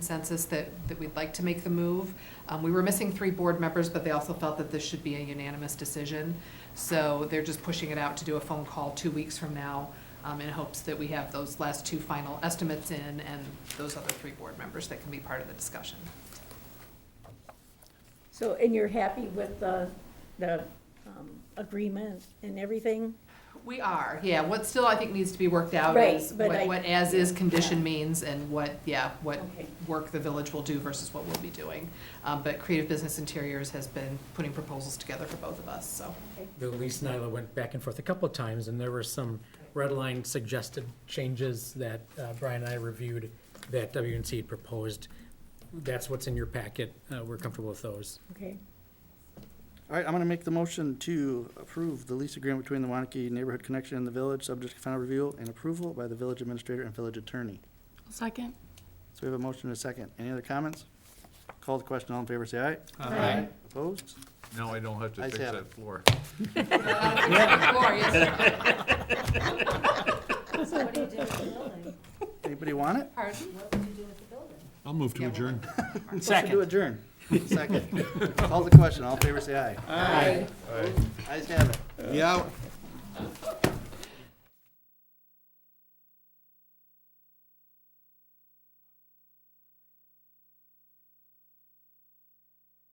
consensus that, that we'd like to make the move. Um, we were missing three board members, but they also felt that this should be a unanimous decision. So they're just pushing it out to do a phone call two weeks from now, um, in hopes that we have those last two final estimates in and those other three board members that can be part of the discussion. So, and you're happy with the, the um, agreement and everything? We are, yeah. What still I think needs to be worked out Right, is but what, I- what as-is condition yeah. means and what, yeah, what Okay. work the village will do versus what we'll be doing. Um, but Creative Business Interiors has been putting proposals together for both of us, so. The lease Nyla went back and forth a couple of times, and there were some red line suggested changes that uh, Brian and I reviewed that WNC had proposed. That's what's in your packet. Uh, We're comfortable with those. Okay, All right, I'm gonna make the motion to approve the lease agreement between the Wanakee Neighborhood Connection and the village, subject to final review and approval by the village administrator and village attorney. Second? So we have a motion and a second. Any other comments? Call the question. All in favor, say aye. Aye. Opposed? Now I don't have to Ayes fix have that it. floor. Glorious. So what do you do with the building? Anybody want it? Pardon? What would you do with the building? I'll move Yeah, to we'll- adjourn. Motion to adjourn. Second. Call the question. All in favor, say aye. Aye. Ayes have it. Yeah.